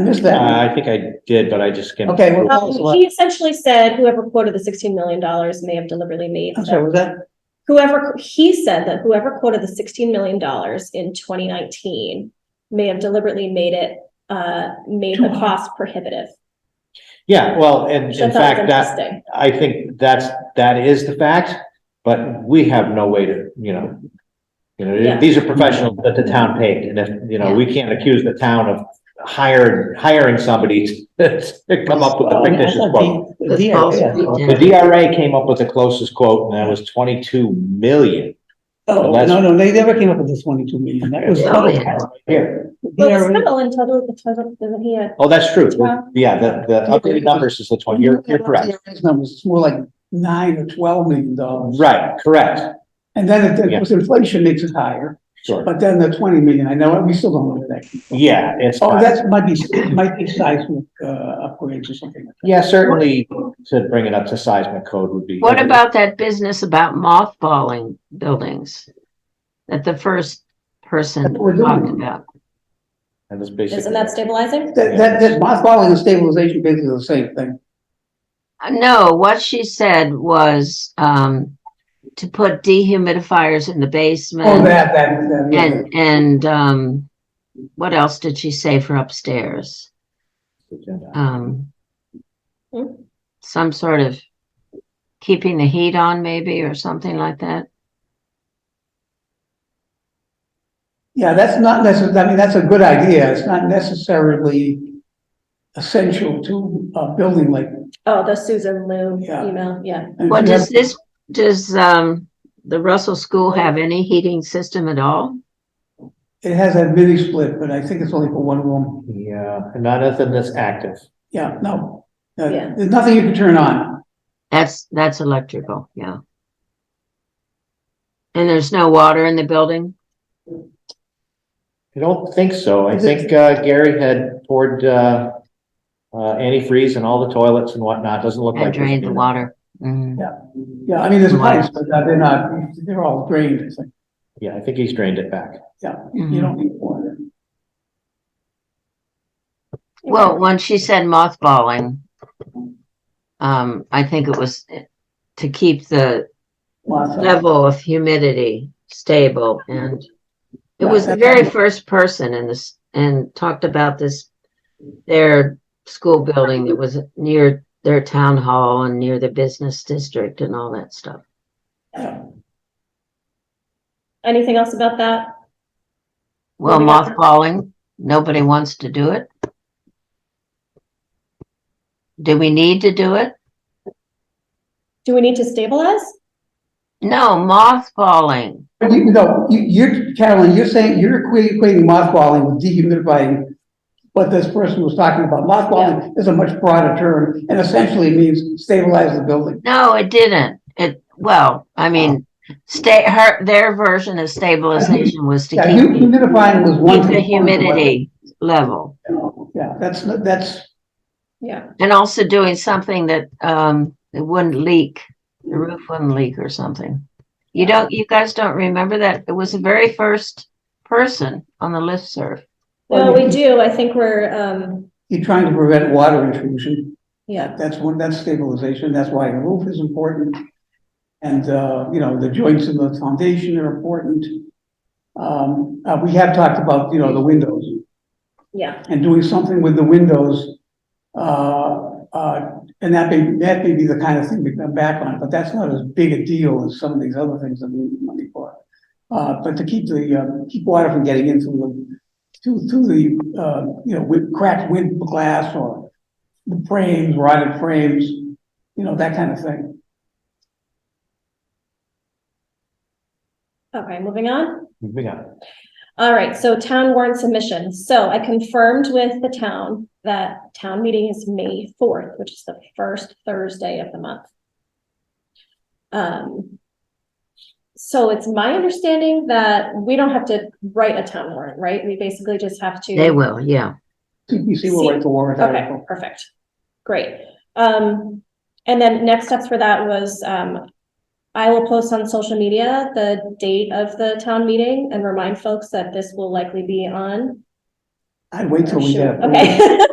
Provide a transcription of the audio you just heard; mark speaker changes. Speaker 1: I missed
Speaker 2: Uh,
Speaker 1: that.
Speaker 2: I think I did, but I just. skimmed
Speaker 1: Okay, well,
Speaker 2: through.
Speaker 1: tell us
Speaker 3: Um,
Speaker 1: what,
Speaker 3: he essentially said whoever quoted the sixteen million dollars may have deliberately made.
Speaker 1: I'm sorry, was that,
Speaker 3: Whoever, he said that whoever quoted the sixteen million dollars in twenty nineteen may have deliberately made it, uh, made
Speaker 1: Too
Speaker 3: the
Speaker 1: high.
Speaker 3: cost prohibitive.
Speaker 2: Yeah, well, and
Speaker 3: Which I
Speaker 2: in
Speaker 3: thought was
Speaker 2: fact, that,
Speaker 3: interesting.
Speaker 2: I think that's, that is the fact, but we have no way to, you know. You
Speaker 3: Yeah.
Speaker 2: know, these are professionals that the town paid, and if, you know, we can't accuse the town of hired, hiring somebody to come up with a
Speaker 1: Well, I mean, Oh, I
Speaker 2: fictitious quote.
Speaker 1: thought the, the DRA.
Speaker 2: The DRA came up with the closest quote, and that was twenty-two million.
Speaker 1: Oh,
Speaker 2: Unless-
Speaker 1: no, no, they never came up with this twenty-two million, that was.
Speaker 4: Oh, yeah.
Speaker 2: Here,
Speaker 1: The
Speaker 3: Well, it's
Speaker 1: DRA
Speaker 3: total and total, the total, doesn't he uh, have?
Speaker 2: oh, that's true,
Speaker 3: Yeah.
Speaker 2: yeah, the, the updated numbers is the twenty, you're, you're correct,
Speaker 1: DRA's Numbers, it's more like nine or twelve million dollars.
Speaker 2: right, correct,
Speaker 1: And then it-
Speaker 2: Yeah.
Speaker 1: it, was inflation makes it higher,
Speaker 2: sure.
Speaker 1: but then the twenty million, I know, we still don't know where that.
Speaker 2: Yeah, it's,
Speaker 1: Oh,
Speaker 2: not-
Speaker 1: that's, might be, might be seismic, uh, upgrades or something. like
Speaker 2: yeah, certainly to bring it up to seismic code would be.
Speaker 4: What about that business about mothballing buildings? That the first person
Speaker 1: That's what we're
Speaker 4: talked
Speaker 1: doing.
Speaker 4: about.
Speaker 2: And it's basically.
Speaker 3: Isn't that stabilizing?
Speaker 1: that. That, that, that mothballing and stabilization basically the same thing.
Speaker 4: Uh, No, what she said was, um, to put dehumidifiers in the
Speaker 1: Oh,
Speaker 4: basement
Speaker 1: that, that, that. yeah.
Speaker 4: Mm. and, and, um, what else did she say for upstairs? Um,
Speaker 3: Hmm.
Speaker 4: some sort of keeping the heat on maybe or something like that?
Speaker 1: Yeah, that's not necess, I mean, that's a good idea. It's not necessarily essential to a building like.
Speaker 3: Oh, the Susan Liu
Speaker 1: Yeah.
Speaker 3: email, yeah.
Speaker 4: Well, does this, does, um, the Russell School have any heating system at all?
Speaker 1: It has a mini split, but I think it's only for one room.
Speaker 2: Yeah, and not nothing that's active.
Speaker 1: Yeah, no. Uh,
Speaker 3: Yeah.
Speaker 1: There's nothing you can turn on.
Speaker 4: That's, that's electrical, yeah. And there's no water in the building?
Speaker 2: I don't think so. I think, uh, Gary had poured, uh, uh, antifreeze in all the toilets and whatnot. Doesn't look
Speaker 4: And
Speaker 2: like.
Speaker 4: drained the water?
Speaker 1: Mm-hmm.
Speaker 4: Mm.
Speaker 1: Yeah, I mean, there's pipes, but uh, they're not, they're all drained. It's like,
Speaker 2: Yeah, I think he's drained it back.
Speaker 4: Mm-hmm.
Speaker 1: you don't need water.
Speaker 4: Well, when she said mothballing, um, I think it was to keep the
Speaker 1: Lots of-
Speaker 4: level of humidity stable and it was the very first person in this and talked about this their school building that was near their town hall and near the business district and all that stuff.
Speaker 1: Yeah.
Speaker 3: Anything else about that? Well,
Speaker 4: Well,
Speaker 3: we
Speaker 4: mothballing, nobody wants to do it. Do we need to do it?
Speaker 3: Do we need to stabilize?
Speaker 4: No, mothballing.
Speaker 1: But you, no, you, you're, Carolyn, you're saying, you're equating equating mothballing with dehumidifying. What this person was talking about, mothballing is a much broader term and essentially means stabilize the building.
Speaker 4: No, it didn't. It, well, I mean, stay, her, their version of stabilization was to
Speaker 1: Yeah,
Speaker 4: keep. the-
Speaker 1: humidifying was one.
Speaker 4: Keep
Speaker 1: component
Speaker 4: the
Speaker 1: of it.
Speaker 4: humidity level
Speaker 1: Yeah, that's, not- that's,
Speaker 3: Yeah,
Speaker 4: and also doing something that, um, it wouldn't leak, the roof wouldn't leak or something. You don't, you guys don't remember that? It was the very first person on the listserv.
Speaker 3: well, we do, I think we're, um,
Speaker 1: you're trying to prevent water intrusion.
Speaker 3: yeah,
Speaker 1: That's one, that's stabilization. That's why the roof is important. And, uh, you know, the joints in the foundation are important. Um, uh, we have talked about, you know, the windows.
Speaker 3: yeah,
Speaker 1: and doing something with the windows. Uh, uh, and that may, that may be the kind of thing we come back on, but that's not as big a deal as some of these other things that we need money for. Uh, but to keep the, uh, keep water from getting into the, to, to the, uh, you know, with cracked wind glass or the frames, rotted frames, you know, that kind of thing.
Speaker 3: okay, moving on.
Speaker 2: Moving on.
Speaker 3: All right, so town warrant submission. So I confirmed with the town that town meeting is May fourth, which is the first Thursday of the month. Um, so it's my understanding that we don't have to write a town warrant, right? We basically just have to.
Speaker 4: They will, yeah.
Speaker 1: CPC will write the warrant
Speaker 3: Okay,
Speaker 1: article.
Speaker 3: perfect. Great. Um, and then next steps for that was, um, I will post on social media the date of the town meeting and remind folks that this will likely be on
Speaker 1: I'd wait till we
Speaker 3: Shoot,
Speaker 1: have.
Speaker 3: Okay.